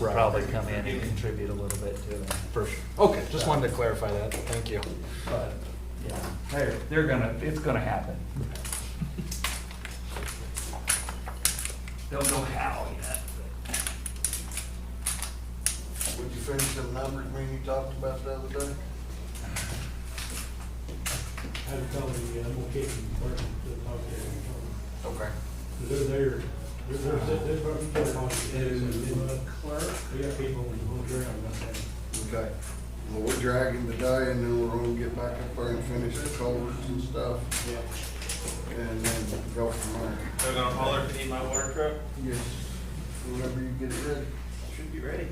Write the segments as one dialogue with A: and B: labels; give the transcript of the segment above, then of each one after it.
A: Right.
B: probably come in and contribute a little bit to it.
A: For sure. Okay, just wanted to clarify that. Thank you.
B: But, yeah, they're, they're gonna, it's gonna happen. Don't know how yet.
C: Would you finish the numbers when you talked about the other day?
D: I had a call the, uh, more kids in the department that talked to them.
C: Okay.
D: They're there, they're, they're, they're, they're probably putting on, and, and, uh,
E: Clerk,
D: we got people on the ground, I think.
C: Okay. Well, we're dragging the day and then we're gonna get back up there and finish the culverts and stuff
D: Yeah.
C: and then go from there.
F: They're gonna holler if you need my water truck,
C: Yes. Whenever you get it ready.
F: should be ready.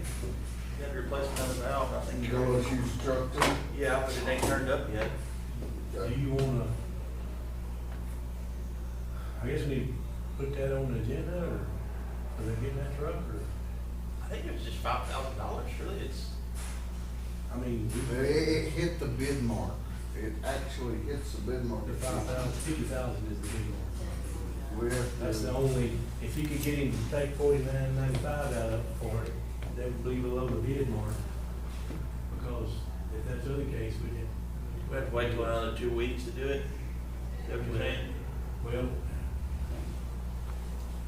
F: You had to replace another valve, I think.
C: You know what you struck them?
F: Yeah, but it ain't turned up yet.
D: Do you wanna? I guess we put that on the agenda, or, are they getting that truck, or,
F: I think it was just five thousand dollars, really, it's,
D: I mean,
C: It,
D: we.
C: it hit the bid mark. It actually hits the bid mark.
D: The five thousand, fifty thousand is the big one.
C: We have to-
D: That's the only, if you could get him to take forty-nine ninety-five out of it for it, that would be below the bid mark. Because if that's the other case, we didn't,
F: we have to wait till another two weeks to do it. Is that what you're saying?
D: well,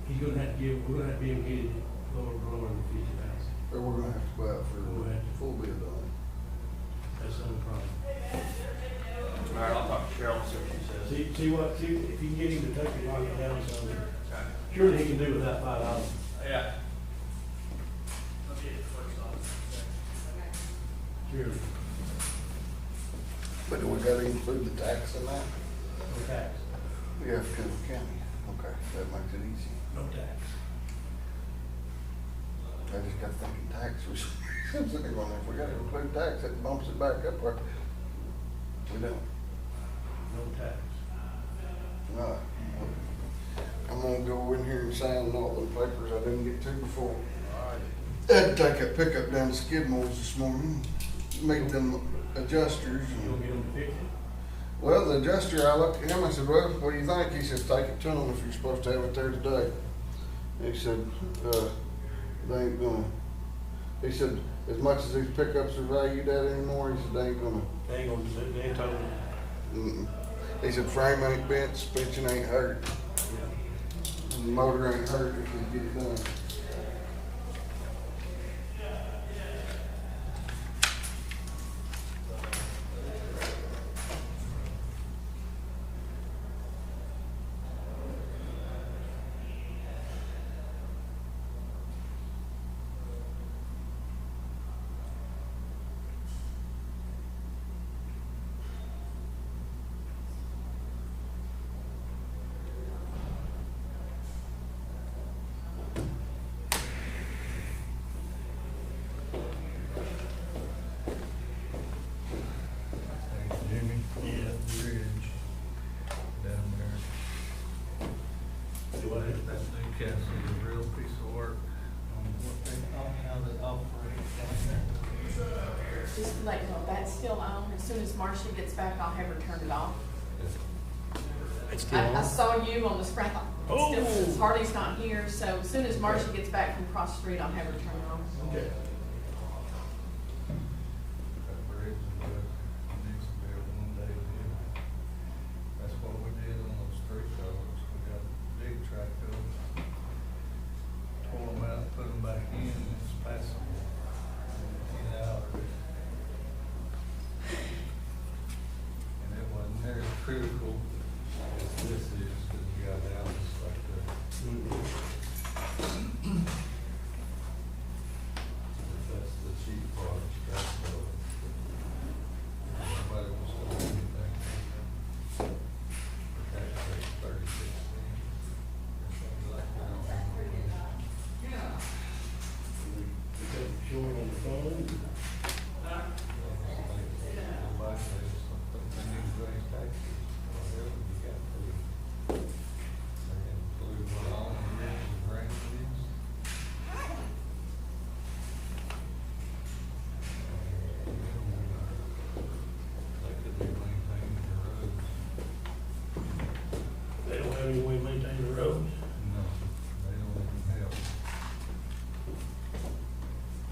D: he's gonna have to give, we're gonna have to be able to get it lower, lower than fifty thousand.
C: Or we're gonna have to go out for a full bid on
D: That's the only problem.
F: All right, I'll talk to Cheryl, and see what she says.
D: See, see what, see, if you can get him to take it, knock it down some, surely he can do without five dollars.
F: Yeah.
D: Surely,
C: it. But do we gotta include the tax in that?
D: no tax,
C: We have to county. Okay, that makes it easy.
D: no tax.
C: I just got thinking tax was, I'm sitting going, if we gotta include tax, it bumps it back up, or we don't,
D: No tax.
C: no. I'm gonna go in here and sign all the papers I didn't get to before. Had to take a pickup down to Skidmore's this morning, made them adjusters,
D: You'll
C: and,
D: get him to fix it.
C: well, the adjuster, I looked at him, I said, well, what do you think? He said, take it to them if you're supposed to have it there today. He said, uh, they ain't gonna, he said, as much as these pickups are valued at anymore, he said, they ain't gonna
D: They ain't gonna, do it. they ain't talking.
C: Mm-mm. He said frame ain't bent, suspension ain't hurt, and the motor ain't hurt if we get it done.
A: Jimmy? Yeah. Bridge down there.
D: Do what?
A: That Newcastle is a real piece of work on what they
E: just to let you know, that's still on. As soon as Marcia gets back, I'll have her turn it off.
D: It's
E: I, I saw you on the screen. I thought, it's still- since Harley's not here, so as soon as Marcia gets back from cross the street, I'll have her turn it on.
D: Okay.
A: That bridge is good, It needs to be a one day deal. That's what we did on those street culverts, we got big track culverts. Tore them out, put them back in, and it's passable. Get out of it. And it wasn't very critical as this is, cause you got Dallas like that. That's the cheap part, that's the. Nobody was doing anything. Tax rate thirty-six cents. Or something like that.
D: Showing on the phone.